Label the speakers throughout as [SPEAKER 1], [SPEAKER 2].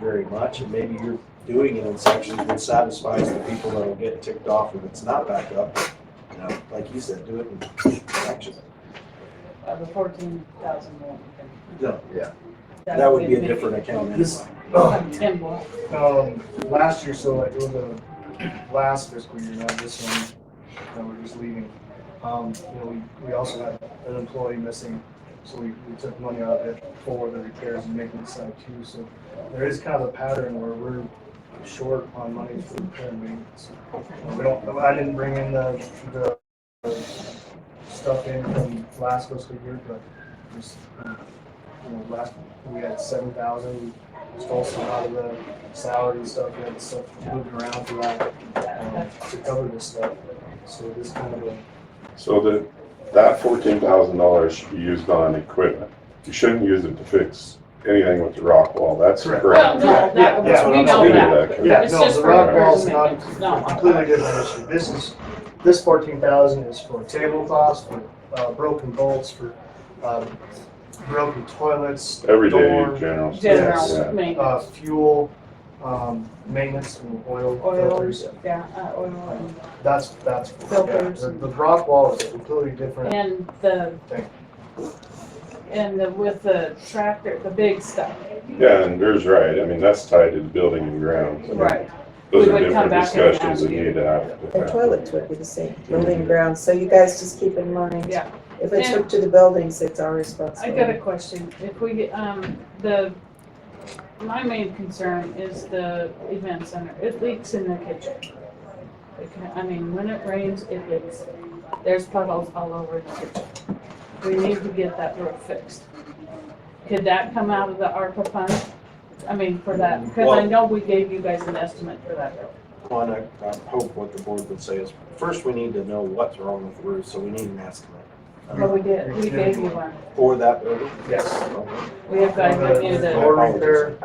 [SPEAKER 1] very much, and maybe you're doing it in sections that satisfies the people that'll get ticked off if it's not back up. You know, like you said, do it in sections.
[SPEAKER 2] Uh, the fourteen thousand one.
[SPEAKER 1] No, That would be a different account.
[SPEAKER 2] This, ten more.
[SPEAKER 3] Um, last year, so like it was the last fiscal year, not this one, that we're just leaving. Um, you know, we, we also had an employee missing, so we, we took money out of it for the repairs and maintenance side too, so there is kind of a pattern where we're short on money for repair and maintenance. Uh, We don't, I didn't bring in the, the the stuff in from last fiscal year, but just, uh, you know, last, we had seven thousand, stole some out of the salary and stuff, we had stuff moved around for that, um, to cover this stuff. So this kind of a,
[SPEAKER 4] So that, that fourteen thousand dollars should be used on equipment. You shouldn't use it to fix anything with the rock wall, that's
[SPEAKER 3] Correct.
[SPEAKER 4] correct.
[SPEAKER 5] Well, no,
[SPEAKER 3] Yeah,
[SPEAKER 5] that,
[SPEAKER 3] yeah,
[SPEAKER 5] was- we
[SPEAKER 4] I'm
[SPEAKER 5] know
[SPEAKER 4] not doing
[SPEAKER 5] that.
[SPEAKER 4] that,
[SPEAKER 5] but
[SPEAKER 4] Kevin.
[SPEAKER 3] yeah,
[SPEAKER 5] it's
[SPEAKER 3] no,
[SPEAKER 5] just
[SPEAKER 3] the
[SPEAKER 5] for
[SPEAKER 3] rock
[SPEAKER 5] repairs
[SPEAKER 3] wall's
[SPEAKER 5] and
[SPEAKER 3] not
[SPEAKER 5] maintenance. No.
[SPEAKER 3] completely different issue. This is, this fourteen thousand is for tablecloths, for, uh, broken bolts, for, um, broken toilets.
[SPEAKER 4] Everyday
[SPEAKER 3] door,
[SPEAKER 4] general. stuff,
[SPEAKER 5] General
[SPEAKER 4] yeah.
[SPEAKER 3] Uh,
[SPEAKER 5] maintenance,
[SPEAKER 3] fuel, um, maintenance and oil filters.
[SPEAKER 2] Oils, yeah, uh, oil
[SPEAKER 3] That's, that's, yeah,
[SPEAKER 2] Filters.
[SPEAKER 3] the, the rock wall is a completely
[SPEAKER 5] and,
[SPEAKER 3] different
[SPEAKER 5] and the,
[SPEAKER 3] thing.
[SPEAKER 5] and the, with the tractor, the big stuff.
[SPEAKER 4] Yeah, and there's right, I mean, that's tied to the building and grounds. I mean, Those
[SPEAKER 5] We
[SPEAKER 4] are
[SPEAKER 5] would come back
[SPEAKER 4] different
[SPEAKER 5] and ask
[SPEAKER 4] discussions that
[SPEAKER 5] you.
[SPEAKER 4] need to happen.
[SPEAKER 6] The toilets would be the same, building grounds, so you guys just keep in mind.
[SPEAKER 5] Yeah.
[SPEAKER 6] If it's hooked to the buildings, it's our
[SPEAKER 5] I got
[SPEAKER 6] responsibility.
[SPEAKER 5] a question. If we, get, um, the, my main concern is the event center. It leaks in their kitchen. It can- I mean, when it rains, it leaks. There's puddles all over the kitchen. We need to get that roof fixed. Could that come out of the ARPA fund? I mean, for that, because I
[SPEAKER 1] Well-
[SPEAKER 5] know we gave you guys an estimate for that roof.
[SPEAKER 1] One, I I hope what the board would say is, first, we need to know what's wrong with the roof, so we need an estimate
[SPEAKER 5] But we did, we gave you one.
[SPEAKER 1] for that building.
[SPEAKER 3] Yes.
[SPEAKER 5] We have guys that knew
[SPEAKER 3] The
[SPEAKER 5] that.
[SPEAKER 3] Door repair,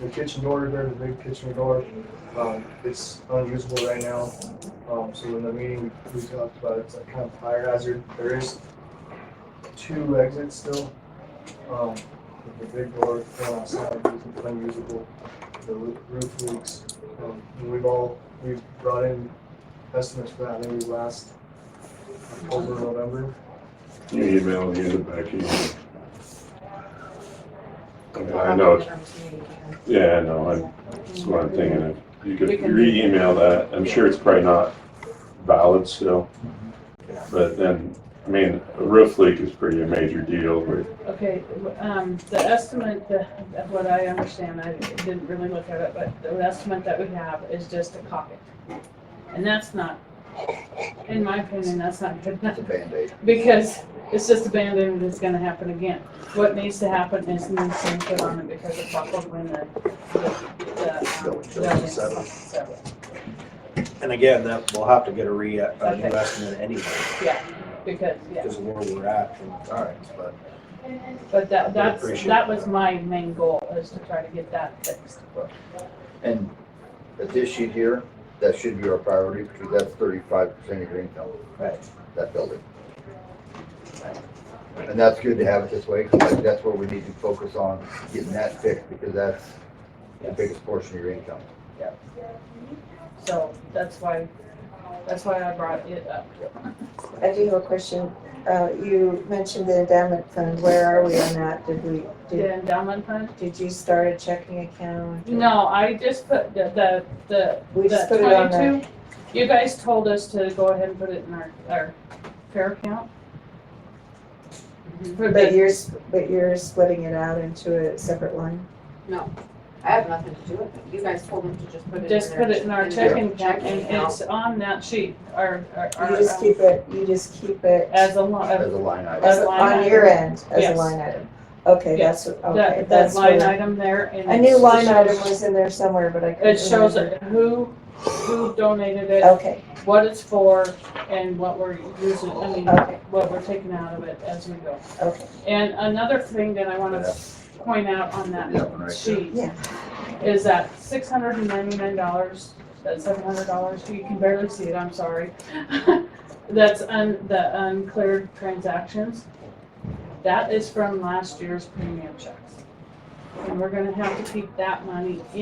[SPEAKER 3] the kitchen door repair, the big kitchen door, um, it's unusable right now. Um, so in the meeting, we we talked about it's a kind of fire hazard. There is two exits still. Um, but the big door on outside is unusable. The roo- roof leaks. Um, and we've all, we've brought in estimates for that maybe last October, November.
[SPEAKER 4] You email, you get back, you. I know, it's- yeah, I know, I'm, that's what I'm thinking of. You could
[SPEAKER 5] We can-
[SPEAKER 4] re-email that, I'm sure it's probably not valid still.
[SPEAKER 1] Yeah.
[SPEAKER 4] But then, I mean, a roof leak is pretty a major deal, but
[SPEAKER 5] Okay, um, the estimate, the, of what I understand, I didn't really look at it, but the estimate that we have is just a pocket. And that's not, in my opinion, that's not good enough,
[SPEAKER 7] It's a Band-Aid.
[SPEAKER 5] because it's just a Band-Aid and it's gonna happen again. What needs to happen is new things put on it because it buckled when the, the, the, um,
[SPEAKER 7] Building
[SPEAKER 5] building
[SPEAKER 1] settled.
[SPEAKER 5] settled.
[SPEAKER 1] And again, that, we'll have to get a re, a new
[SPEAKER 5] Okay.
[SPEAKER 1] estimate anyway,
[SPEAKER 5] Because, yeah,
[SPEAKER 1] because of where we're at from the times, but
[SPEAKER 5] but that,
[SPEAKER 1] We
[SPEAKER 5] that's,
[SPEAKER 1] appreciate
[SPEAKER 5] that was
[SPEAKER 1] that.
[SPEAKER 5] my main goal, is to try to get that fixed.
[SPEAKER 7] And at this sheet here, that should be our priority because that's thirty-five percent of your income.
[SPEAKER 1] Right.
[SPEAKER 7] That building. And that's good to have it this way, 'cause like that's where we need to focus on getting that fixed because that's the biggest portion of your income.
[SPEAKER 5] So that's why, that's why I brought it up.
[SPEAKER 6] I do have a question. Uh, you mentioned the endowment fund, where are we on that? Did we,
[SPEAKER 5] The
[SPEAKER 6] did,
[SPEAKER 5] endowment fund?
[SPEAKER 6] did you start a checking account?
[SPEAKER 5] No, I just put the, the, the,
[SPEAKER 6] We
[SPEAKER 5] the
[SPEAKER 6] just put it on the,
[SPEAKER 5] twenty-two. You guys told us to go ahead and put it in our, our fair account. For
[SPEAKER 6] Mm-hmm. but
[SPEAKER 5] the,
[SPEAKER 6] you're, s- but you're splitting it out into a separate line?
[SPEAKER 8] I have nothing to do with it. You guys told them to just put it in.
[SPEAKER 5] just
[SPEAKER 8] their-
[SPEAKER 5] put it in our
[SPEAKER 8] their
[SPEAKER 5] checking account
[SPEAKER 8] checking
[SPEAKER 5] and it's on that sheet, our, our,
[SPEAKER 6] You
[SPEAKER 5] our,
[SPEAKER 6] just
[SPEAKER 5] um,
[SPEAKER 6] keep it, you just keep it
[SPEAKER 5] as a lot
[SPEAKER 7] As a
[SPEAKER 5] of,
[SPEAKER 7] line item.
[SPEAKER 6] as,
[SPEAKER 5] a
[SPEAKER 6] a-
[SPEAKER 5] line
[SPEAKER 6] on your end, as
[SPEAKER 5] Yes.
[SPEAKER 6] a line item? Okay, that's, what- okay,
[SPEAKER 5] that, that
[SPEAKER 6] that's what.
[SPEAKER 5] line item there and.
[SPEAKER 6] I
[SPEAKER 5] it's-
[SPEAKER 6] knew
[SPEAKER 5] it
[SPEAKER 6] line
[SPEAKER 5] shows-
[SPEAKER 6] item was in there somewhere, but I couldn't
[SPEAKER 5] It shows
[SPEAKER 6] remember.
[SPEAKER 5] who, who donated it,
[SPEAKER 6] Okay,
[SPEAKER 5] what it's for and what we're using, I mean,
[SPEAKER 6] Okay.
[SPEAKER 5] what we're taking out of it as we go.
[SPEAKER 6] Okay.
[SPEAKER 5] And another thing that I want
[SPEAKER 7] Yeah.
[SPEAKER 5] to point out on that
[SPEAKER 7] That one right there.
[SPEAKER 5] sheet
[SPEAKER 6] Yeah.
[SPEAKER 5] is that six hundred and ninety-nine dollars, that's seven hundred dollars, you can barely see it, I'm sorry. That's un, the uncleared transactions. That is from last year's premium checks. And we're gonna have to keep that money in.